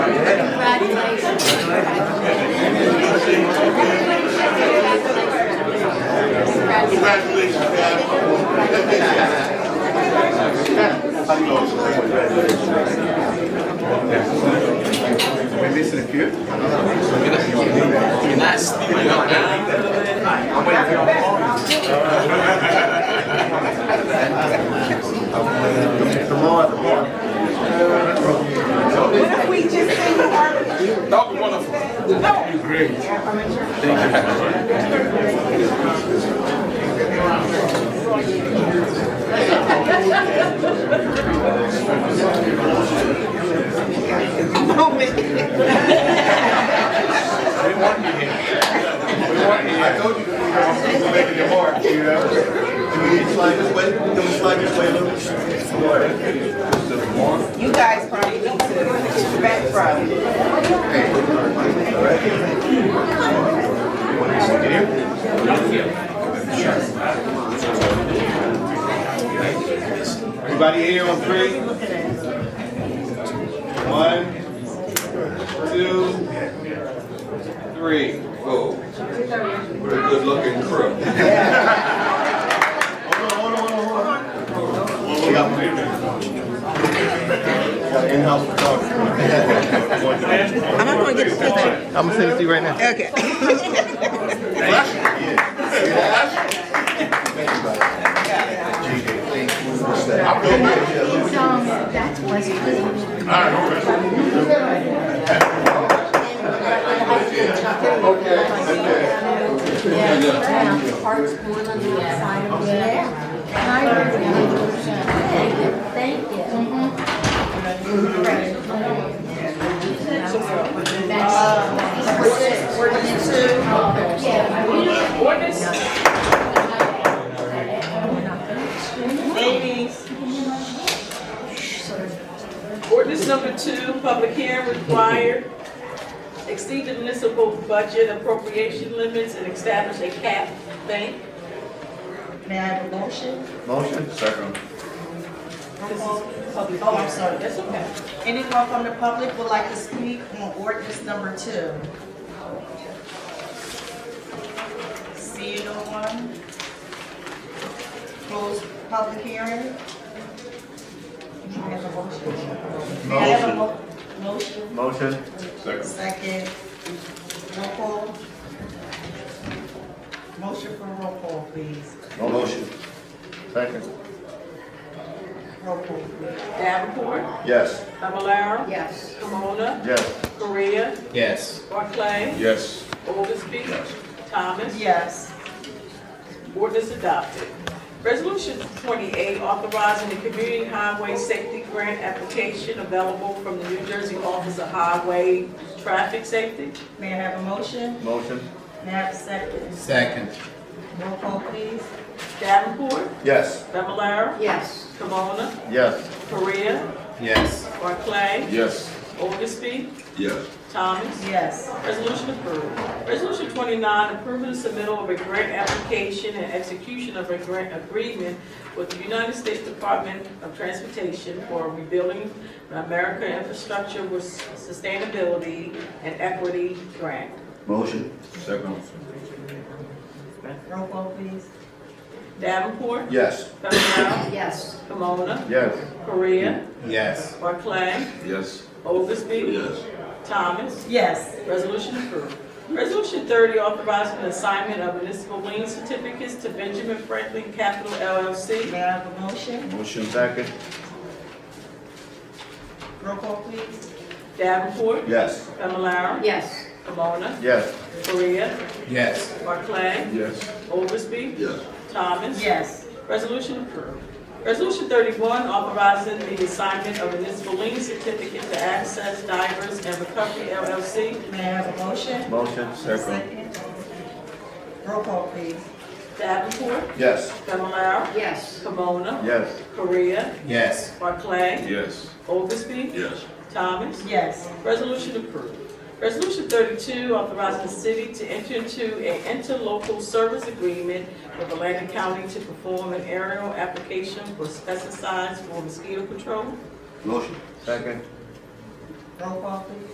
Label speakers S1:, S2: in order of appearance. S1: When they disappeared,
S2: What if we just say you are the truth?
S3: That would be wonderful.
S2: No.
S1: great.
S2: Moment.
S1: We want you here. We want you here. I told you that we were going to make it hard, you know? Do we need to slide this way? Can we slide this way a little?
S2: You guys probably need to back probably.
S1: Everybody here on three? One, two, three,
S3: Whoa. What a good looking crew.
S1: Hold on, hold on, hold on, hold on. We got one. Got an in-house photographer.
S2: I'm not gonna get the picture.
S4: I'm gonna send it to you right now.
S2: Okay.
S5: Um, that's West Virginia. Yeah, yeah. Hearts going on the outside of the air. Thank you, thank you.
S6: Ladies. Ordinance number two, public hearing required. Exceed the municipal budget appropriation limits and establish a cap. Thank.
S5: May I have a motion?
S1: Motion, second.
S6: Oh,
S7: Oh, I'm sorry.
S6: That's okay.
S7: Anyone from the public would like to speak on ordinance number two? See no one? Close public hearing? May I have a motion? May I have a mo- Motion,
S1: Motion. Second.
S7: second, roll call. Motion for roll call, please.
S1: Motion. Second.
S7: Roll call, please.
S6: Davenport,
S1: Yes.
S6: Fablelaro,
S5: Yes.
S6: Kimona,
S1: Yes.
S6: Korea,
S4: Yes.
S6: Barclay,
S3: Yes.
S6: Oldesty, Thomas.
S7: Yes.
S6: Ordinance adopted. Resolution 28, authorizing the community highway safety grant application available from the New Jersey Office of Highway Traffic Safety.
S7: May I have a motion?
S1: Motion.
S7: May I have a second?
S4: Second.
S7: Roll call, please.
S6: Davenport,
S1: Yes.
S6: Fablelaro,
S5: Yes.
S6: Kimona,
S1: Yes.
S6: Korea,
S4: Yes.
S6: Barclay,
S3: Yes.
S6: Oldesty,
S3: Yes.
S6: Thomas.
S7: Yes.
S6: Resolution approved. Resolution 29, approving the submittal of a grant application and execution of a grant agreement with the United States Department of Transportation for rebuilding America infrastructure with sustainability and equity grant.
S1: Motion. Second.
S7: Roll call, please.
S6: Davenport,
S1: Yes.
S6: Fablelaro,
S5: Yes.
S6: Kimona,
S1: Yes.
S6: Korea,
S4: Yes.
S6: Barclay,
S3: Yes.
S6: Oglesby,
S3: Yes.
S6: Thomas.
S7: Yes.
S6: Resolution approved. Resolution 30, authorizing the assignment of municipal lien certificates to Benjamin Franklin Capital LLC.
S7: May I have a motion?
S1: Motion. Second.
S7: Roll call, please.
S6: Davenport,
S1: Yes.
S6: Fablelaro,
S5: Yes.
S6: Camona,
S1: Yes.
S6: Korea,
S4: Yes.
S6: Barclay,
S3: Yes.
S6: Oglesby,
S3: Yes.
S6: Thomas.
S7: Yes.
S6: Resolution approved. Resolution 31, authorizing the assignment of municipal lien certificate to Access Divers and Recovery LLC.
S7: May I have a motion?
S1: Motion. Second.
S7: Roll call, please.
S6: Davenport,
S1: Yes.
S6: Fablelaro,
S5: Yes.
S6: Camona,
S1: Yes.
S6: Korea,
S4: Yes.
S6: Barclay,
S3: Yes.
S6: Oglesby,
S3: Yes.
S6: Thomas.
S7: Yes.
S6: Resolution approved. Resolution 32, authorizing the city to enter into an interlocal service agreement with Atlantic County to perform an aerial application for pesticides for mosquito control.
S1: Motion. Second.
S7: Roll call, please.